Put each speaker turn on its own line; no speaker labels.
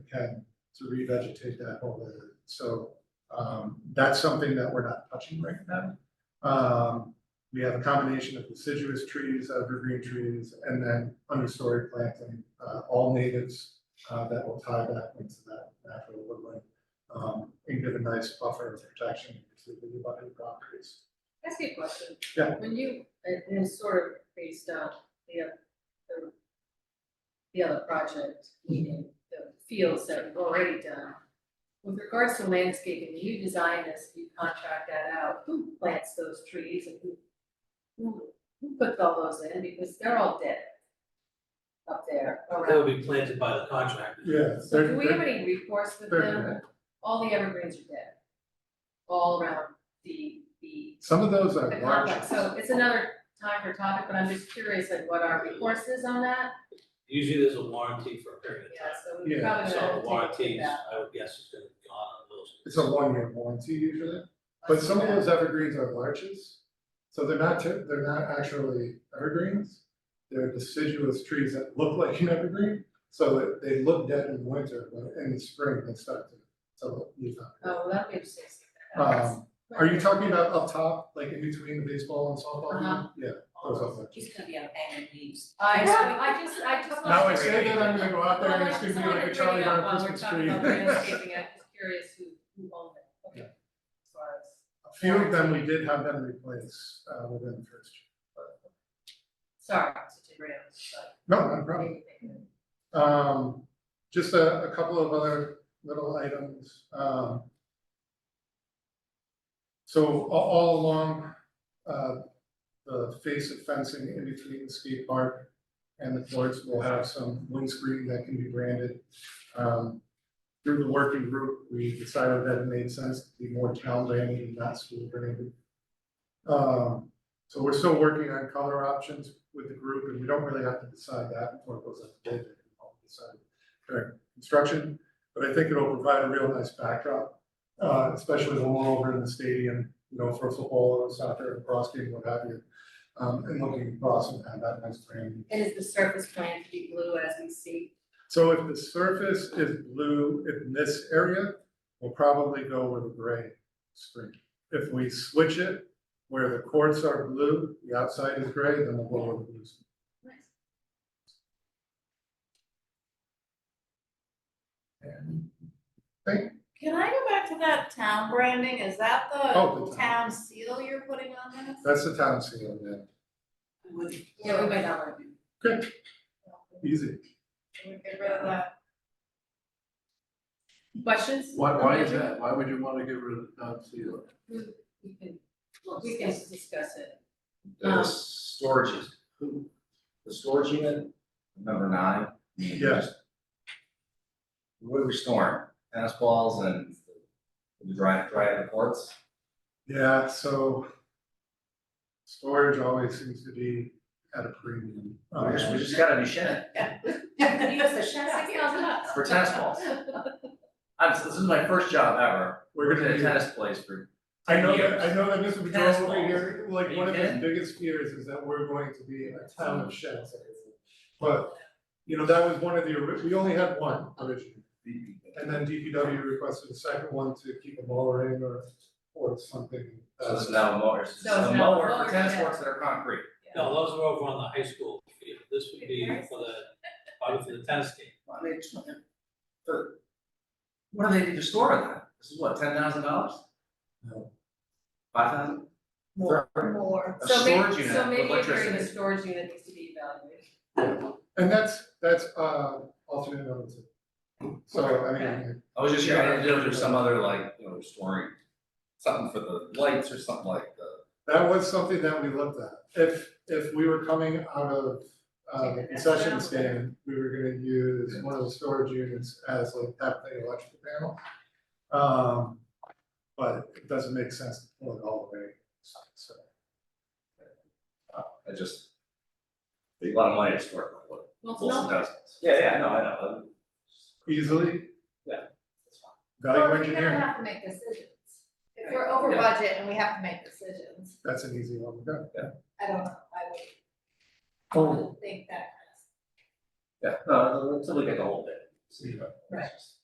can to revegetate that whole area. So um that's something that we're not touching right now. Um, we have a combination of deciduous trees, evergreen trees, and then understory planting, uh all natives uh that will tie back into that natural woodland. Um, and give a nice buffer of protection to the abutting properties.
Ask you a question.
Yeah.
When you, it it was sort of based on the, oth- the, the other project, meaning the fields that we've already done. With regards to landscaping, you design this, you contract that out, who plants those trees and who, who, who puts all those in, because they're all dead up there
That
around.
would be planted by the contractor.
Yeah,
So
they're-
do we
they're-
have any recourse with
they're
them?
dead.
All the evergreens are dead. All around the, the
some of those are
the
large.
complex, so it's another time for topic, but I'm just curious, like, what our recourse is on that?
Usually there's a warranty for a period
Yeah,
of
so we're
Yeah,
time.
probably
So
gonna
the
have to take
warranties,
that.
I would guess is gonna be gone on those.
It's a one-year warranty usually. But some of those evergreens are larches, so they're not, typ- they're not actually evergreens. They're deciduous trees that look like an evergreen, so that they look dead in winter, but in the spring they start to, to leaf out.
Oh, well, that'd be interesting. to see what that is.
Um, are you talking about up top, like in between the baseball and softball?
Uh-huh.
field? Yeah, those up there.
She's gonna be on hanging leaves.
I, so I just, I just.
Now I
wanted to-
say that, I'm gonna go out there
Well,
and
I
it's gonna
just
be like
wanted
a
to bring
Charlie
it up
Brown
while we're
Christmas
talking
tree.
about landscaping. I'm just curious who, who owned it, okay,
Yeah.
as far
A
as.
few of them, we did have them replaced, uh, within the first year.
Sorry, such a random, but.
No, not a problem.
anything.
Um, just a, a couple of other little items, um. So a- all along, uh, the face of fencing in between the skate park and the courts will have some windscreen that can be branded. Um, through the working group, we decided that it made sense to be more town branded and not school branded. Um, so we're still working on color options with the group, and we don't really have to decide that before it goes up to bid, I'll decide during construction. But I think it'll provide a real nice backdrop, uh, especially when we're over in the stadium, you know, for football or soccer, or cross game, what have you. Um, and looking across and have that nice frame.
And is the surface plan to be blue as we see?
So if the surface is blue in this area, we'll probably go with a gray screen. If we switch it, where the courts are blue, the outside is gray, then we'll go with the blue. screen.
Nice.
And
Can I go back to that town branding? Is that
Oh,
the
the town.
town seal you're putting on this?
That's the town seal, yeah,
I wouldn't-
Yeah, we might not want to do
easy.
I would get rid of that.
Questions?
Why, why is that? Why would you wanna get rid of the town seal?
We can, we can discuss it.
the storage is, the storage unit, number nine. I mean,
Yeah.
just- What are we storing? Tennis balls and the dry, dry courts?
Yeah, so storage always seems to be at a premium.
We just, we just got a new shed
Use the shed.
for tennis balls. I'm, this is my first job ever,
We're
working
gonna
at
be-
a tennis place for
I know that,
years.
I know that Mr. Pedrosa
Tennis
over
balls.
here, like,
Are
one
you
of his
kidding?
biggest fears is that we're going to be a town of sheds. But, you know, that was one of the, ori- we only had one originally, and then DPW requested a second one to keep a mower in or, or something. uh,
So this is now a mower, this is
So it's
a
now a
mower
mower,
for tennis
yeah.
courts that are concrete.
No, those were over on the high school field. This would be for the, probably for the tennis game.
Well, I mean, it's, but what do they need to store in that? This is what, ten thousand dollars?
No.
Five thousand?
More, more.
A
So maybe,
storage unit
so
with
maybe agreeing the
electricity.
storage unit needs to be evaluated.
And that's, that's, uh, alternate number two. So, I mean,
I was just trying to do there's some other like, you know, story, something for the lights or something like the.
that was something that we looked at. If, if we were coming out of, uh, the concession stand, we were gonna use one of the storage units as like that thing electrical panel. Um, but it doesn't make sense to pull it all the way, so.
I just. A lot of money to store, like what,
Well, it's
Wilson
not,
does. Yeah, yeah, no, I know.
Easily,
That's fine.
value engineering,
have to make decisions. If
we're over Yeah.
budget and we have to make decisions,
that's an easy one, to go.
I don't know, I would, think that.
Yeah, no, let's look at the whole bit.
Yeah.
Right.